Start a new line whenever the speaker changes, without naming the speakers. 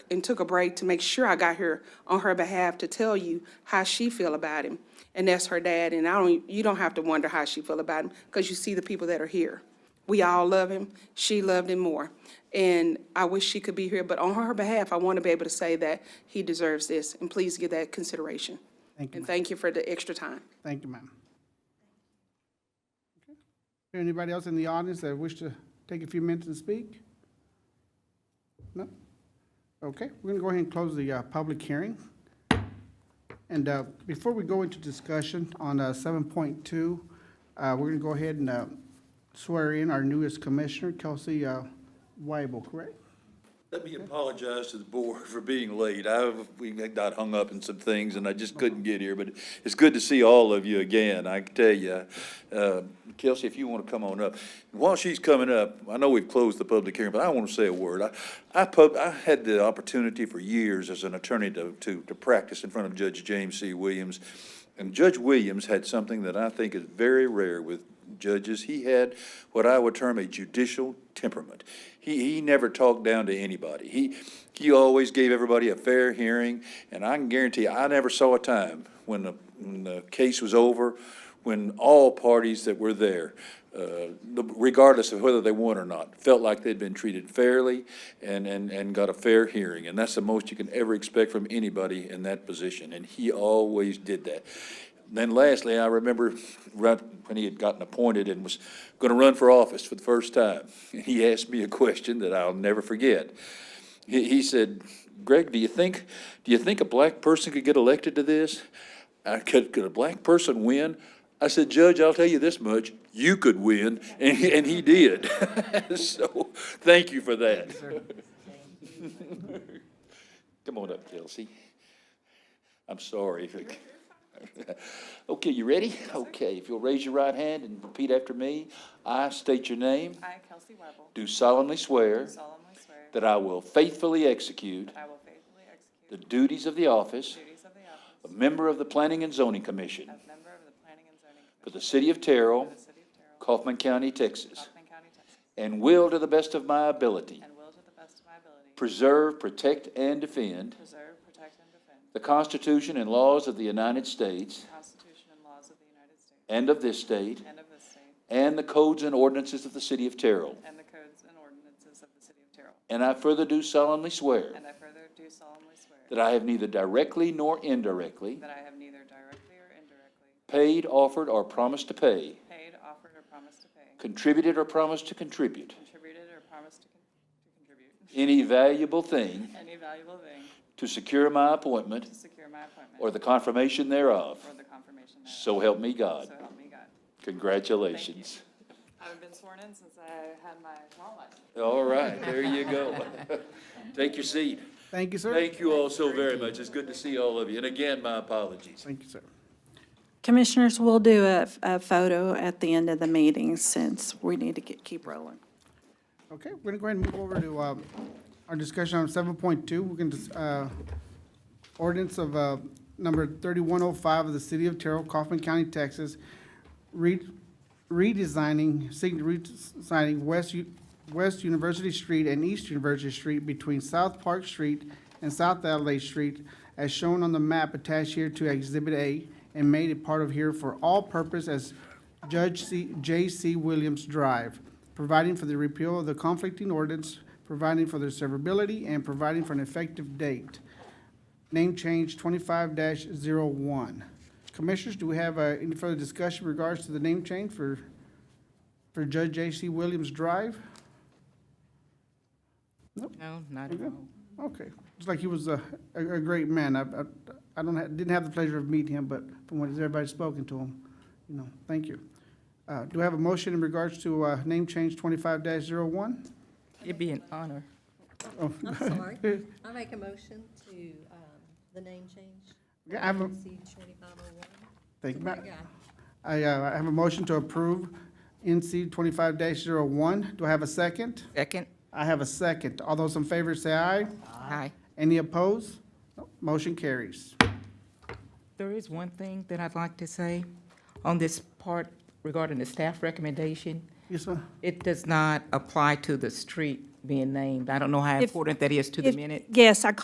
and took a break to make sure I got here on her behalf to tell you how she feel about him. And that's her dad, and I don't, you don't have to wonder how she feel about him, because you see the people that are here. We all love him. She loved him more. And I wish she could be here, but on her behalf, I want to be able to say that he deserves this, and please give that consideration.
Thank you,
And
ma'am.
thank you for the extra time.
Thank you, ma'am. Okay. Is there Anybody else in the audience that wish to take a few minutes and speak? No? Okay, we're gonna go ahead and close the uh, public hearing. And uh, before we go into discussion on uh, seven point two, we're gonna go ahead and uh, swear in our newest commissioner, Kelsey uh, Weibel, correct?
Let me apologize to the board for being late. I, we got hung up in some things and I just couldn't get here, but it's good to see all of you again, I can tell you. Uh, Kelsey, if you want to come on up. While she's coming up, I know we've closed the public hearing, but I want to say a word. I, I pub, I had the opportunity for years as an attorney to, to, to practice in front of Judge James C. Williams. And Judge Williams had something that I think is very rare with judges. He had what I would term a judicial temperament. He, he never talked down to anybody. He, he always gave everybody a fair hearing, and I can guarantee I never saw a time when the, when the case was over, when all parties that were there, uh, regardless of whether they won or not, felt like they'd been treated fairly and, and, and got a fair hearing. And that's the most you can ever expect from anybody in that position, and he always did that. Then lastly, I remember right when he had gotten appointed and was going to run for office for the first time, he asked me a question that I'll never forget. He, he said, Greg, do you think, do you think a black person could get elected to this? I could, could a black person win? I said, Judge, I'll tell you this much, you could win, and, he- and he did. So, thank you for that. Come on up, Kelsey. I'm sorry. if it- Okay, you ready? Okay, if you'll raise your right hand and repeat after me. I state your name,
I, Kelsey Webble,
do solemnly swear
solemnly swear that
that I will faithfully execute
I will faithfully
the
execute
duties of the office
the duties of the office
of member of the Planning and Zoning Commission
of member of the Planning and Zoning
for
Commission
the city of Terrell,
for the City of Terrell,
Kaufman County, Texas,
Kaufman County, Texas,
and will, to the best of my ability,
and will to the best of my ability
preserve, protect, and defend
preserve, protect, and defend
the Constitution and laws of the United States
the Constitution and laws of the United States
and of this state,
and of this state,
and the codes and ordinances of the city of Terrell.
and the codes and ordinances of the City of Terrell.
And I further do solemnly swear
And I further do solemnly swear
that I have neither directly nor indirectly
that I have neither directly or indirectly
paid, offered, or promised to pay,
paid, offered, or promised to pay,
contributed, or promised to contribute
contributed, or promised to con- to contribute
any valuable thing
any valuable thing
to secure my appointment
to secure my appointment.
or the confirmation thereof.
Or the confirmation thereof.
So help me God.
So help me God.
Congratulations.
I haven't been sworn in since I had my law license.
All right, there you go. Take your seat.
Thank you, sir.
Thank you all so very much. It's good to see all of you. And again, my apologies.
Thank you, sir.
Commissioners, we'll do a, a photo at the end of the meeting since we need to get, keep rolling.
Okay, we're gonna go ahead and move over to uh, our discussion on seven point two. We're gonna, uh, ordinance of uh, number thirty-one oh five of the city of Terrell, Kaufman County, Texas, re- redesigning, sig- redesigning West, U- West University Street and East University Street between South Park Street and South Adelaide Street as shown on the map attached here to Exhibit A and made it part of here for all purpose as Judge C, J.C. Williams Drive, providing for the repeal of the conflicting ordinance, providing for their severability, and providing for an effective date. Name change twenty-five dash Commissioners, do we have, uh, any further discussion in regards to the name change for, for Judge J.C. Williams Drive?
No, not at all.
Okay, it's like he was a, a, a great man. I, I, I don't, ha- didn't have the pleasure of meeting him, but from what everybody's spoken to him, you know, thank you. Uh, do I have a motion in regards to, uh, name change twenty-five dash
It'd be an honor.
I'm sorry. I make a motion to um, the name change.
Yeah, I have a-
C twenty-five oh one.
Thank you, ma'am.
Yeah,
I, uh, I have a motion to approve NC twenty-five dash Do I have a second?
Second?
I have a second. All those in favor say aye.
Aye.
Any opposed? No. Motion carries.
There is one thing that I'd like to say on this part regarding the staff recommendation.
Yes, ma'am.
It does not apply to the street being named. I don't know how important that is to the
If-
minute.
Yes, I